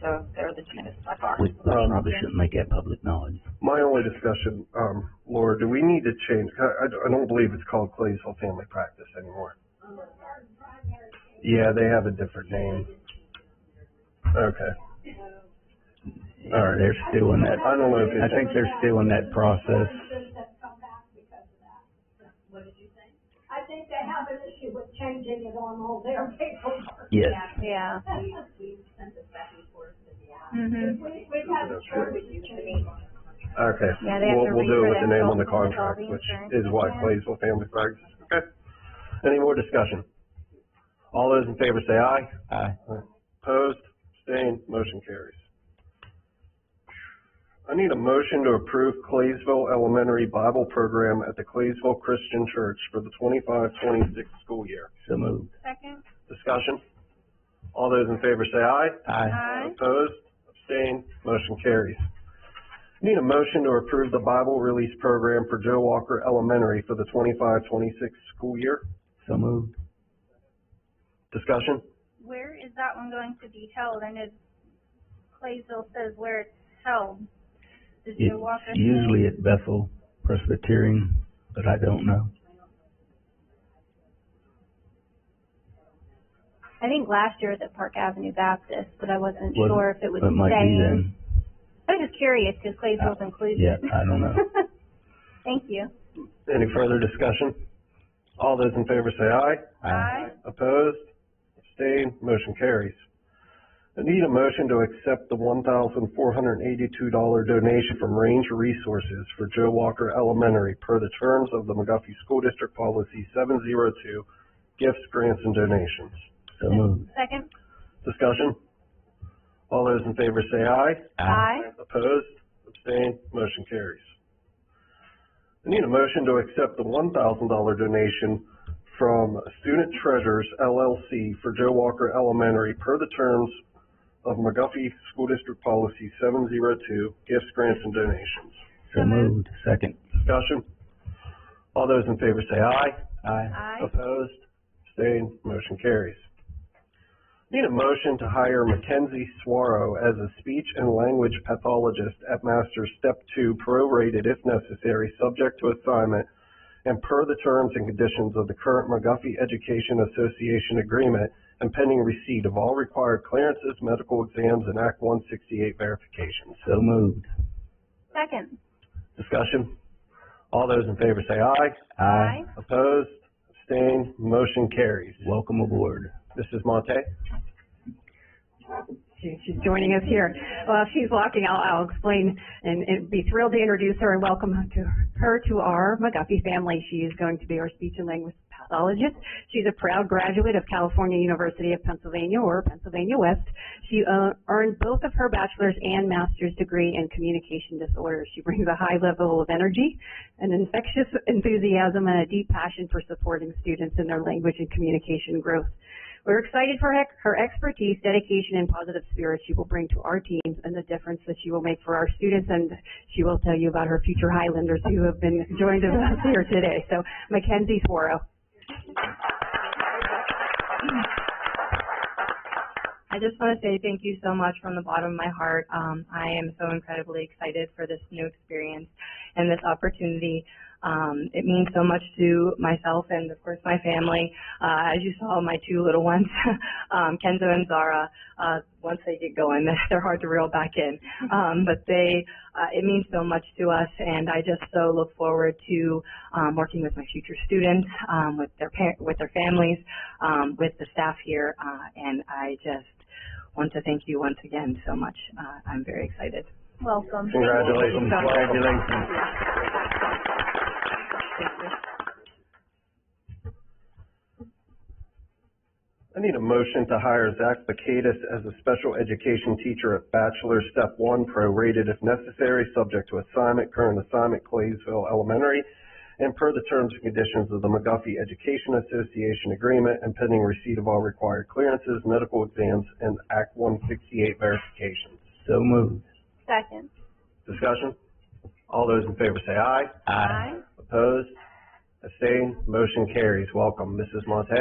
So they're the cheapest by far. We Um, probably shouldn't make that public knowledge. My only discussion, um, Laura, do we need to change, I, I- I don't believe it's called Claysville Family Practice anymore. Yeah, they have a different name. Okay, All right. They're still in that, I don't know if I it's, think they're still in that process. I think they have an issue with changing it on all their paperwork. Yes, Yeah. We, Mhm. we've had a shortage of change. okay. Yeah, they have to We'll, we'll do it read with the name on the it. contract, All the which insurance. is what, Claysville Family Practice, okay? Any more discussion? All those in favor say aye. I, Opposed, abstained, motion carries. I need a motion to approve Claysville Elementary Bible Program at the Claysville Christian Church for the 25-26 school year. so moved. Second? Discussion? All those in favor say aye. I, Aye. Opposed, abstained, motion carries. Need a motion to approve the Bible Release Program for Joe Walker Elementary for the 25-26 school year. so moved. Discussion? Where is that one going to be held? I know Claysville says where it's held. Does It's Joe Walker? say? usually at Bethel Presbyterian, but I don't know. I think last year it was at Park Avenue Baptist, but I wasn't Well, sure if it was It might be saying. then. Uh, I was just curious, cause Claysville's included. yeah, I don't know. Thank you. Any further discussion? All those in favor say aye. I, Opposed? Abstained? Motion carries. I need a motion to accept the one thousand four hundred and eighty-two dollar donation from Range Resources for Joe Walker Elementary per the terms of the McGuffey School District Policy seven zero two, gifts, grants, and donations. so moved. Second? Discussion? All those in favor say aye. Aye. Opposed? Abstained? Motion carries. I need a motion to accept the one thousand dollar donation from Student Treasures LLC for Joe Walker Elementary per the terms of McGuffey School District Policy seven zero two, gifts, grants, and donations. So moved. Second. Discussion? All those in favor say aye. I, Aye. Opposed? Abstained? Motion carries. Need a motion to hire Mackenzie Swaro as a speech and language pathologist at Master's Step Two, prorated if necessary, subject to assignment, and per the terms and conditions of the current McGuffey Education Association agreement, and pending receipt of all required clearances, medical exams, and Act one sixty-eight verifications. so moved. Second? Discussion? All those in favor say aye. I, Opposed? Abstained? Motion carries. welcome aboard. This is Monte. She- She's joining us here. Well, if she's walking, I'll, I'll explain and, and be thrilled to introduce her and welcome to her to our McGuffey family. She is going to be our speech and language pathologist. She's a proud graduate of California University of Pennsylvania or Pennsylvania West. She uh, earned both of her bachelor's and master's degree in communication disorders. She brings a high level of energy, an infectious enthusiasm, and a deep passion for supporting students in their language and communication growth. We're excited for her- her expertise, dedication, and positive spirit she will bring to our teams and the difference that she will make for our students. And she will tell you about her future Highlanders who have been joined with us here today. So Mackenzie Swaro. I just want to say thank you so much from the bottom of my heart. Um, I am so incredibly excited for this new experience and this opportunity. Um, it means so much to myself and, of course, my family. Uh, as you saw, my two little ones, um, Kenzo and Zara, uh, once they get going, they're hard to reel back in. Mm-hmm. Um, but they, uh, it means so much to us, and I just so look forward to um, working with my future students, um, with their par- with their families, um, with the staff here, uh, and I just want to thank you once again so much. Uh, I'm very excited. Welcome. Congratulations. Congratulations. I need a motion to hire Zach Bacatus as a special education teacher at Bachelor Step One, prorated if necessary, subject to assignment, current assignment, Claysville Elementary, and per the terms and conditions of the McGuffey Education Association agreement and pending receipt of all required clearances, medical exams, and Act one sixty-eight verifications. So moved. Second? Discussion? All those in favor say aye. I, Opposed? Abstained? Motion carries. Welcome, Mrs. Monte.